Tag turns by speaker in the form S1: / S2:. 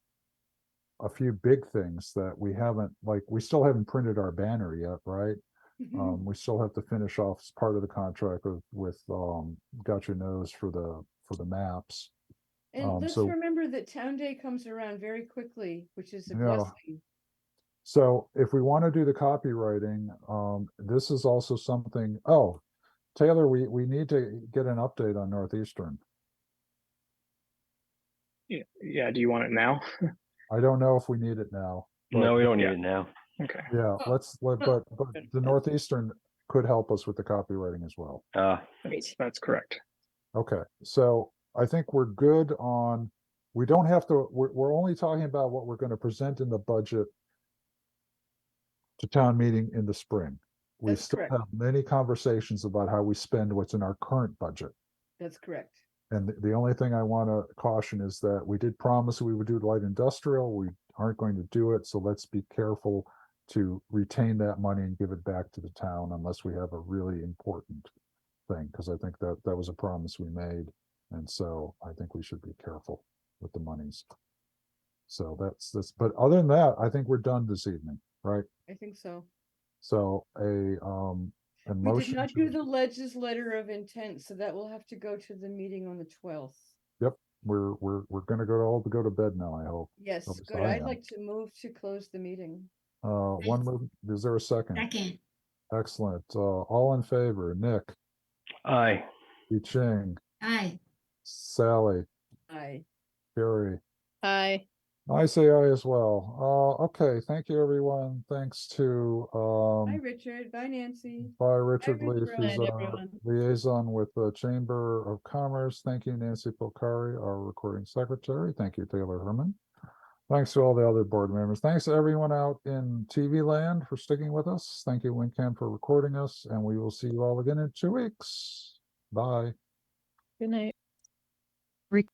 S1: a few big things that we haven't, like, we still haven't printed our banner yet, right?
S2: Mm-hmm.
S1: Um, we still have to finish off s- part of the contract with, with, um, Got Your Nose for the, for the maps. um,
S2: And let's
S1: so-
S2: remember that Town Day comes around very quickly, which is a
S1: Yeah.
S2: blessing.
S1: So if we want to do the copywriting, um, this is also something, oh, Taylor, we, we need to get an update on Northeastern.
S3: Yeah, yeah, do you want it now?
S1: I don't know if we need it now. but-
S4: No, we don't need
S3: Yeah.
S4: it now.
S3: Okay.
S1: Yeah,
S2: Well,
S1: let's, let- but, but the Northeastern could help us with the copywriting as well.
S4: Uh,
S3: That's, that's correct.
S1: Okay, so I think we're good on, we don't have to, we're, we're only talking about what we're gonna present in the budget to town meeting in the spring. We
S2: That's
S1: still
S2: correct.
S1: have many conversations about how we spend what's in our current budget.
S2: That's correct.
S1: And the- the only thing I wanna caution is that we did promise we would do light industrial, we aren't going to do it, so let's be careful to retain that money and give it back to the town unless we have a really important thing, because I think that that was a promise we made. And so I think we should be careful with the monies. So that's this, but other than that, I think we're done this evening, right?
S2: I think so.
S1: So a um. a
S2: We did
S1: motion
S2: not
S1: to-
S2: do the ledge's letter of intent, so that will have to go to the meeting on the twelfth.
S1: We're we're we're gonna go to all go to bed now, I hope.
S2: Yes,
S1: Well, it's
S2: good.
S1: fine
S2: I'd
S1: then.
S2: like to move to close the meeting.
S1: Uh, one move, is there a second?
S5: Second,
S1: Excellent. Uh, all in favor, Nick,
S4: aye.
S1: Yi Ching,
S5: aye.
S1: Sally,
S2: Aye.
S1: Gary.
S6: Aye.
S1: I say aye as well. Uh, okay, thank you, everyone. Thanks to,
S2: Bye,
S1: um,
S2: Richard. Bye, Nancy.
S1: by Richard
S2: Richard
S1: Leaf, who's
S6: Bye,
S1: our
S6: everyone.
S1: liaison with the Chamber of Commerce. Thank you, Nancy Polcari, our recording secretary. Thank you, Taylor Herman. Thanks to all the other board members. Thanks to everyone out in TV land for sticking with us. Thank you, WinCam, for recording us, and we will see you all again in two weeks. Bye.
S6: Good night.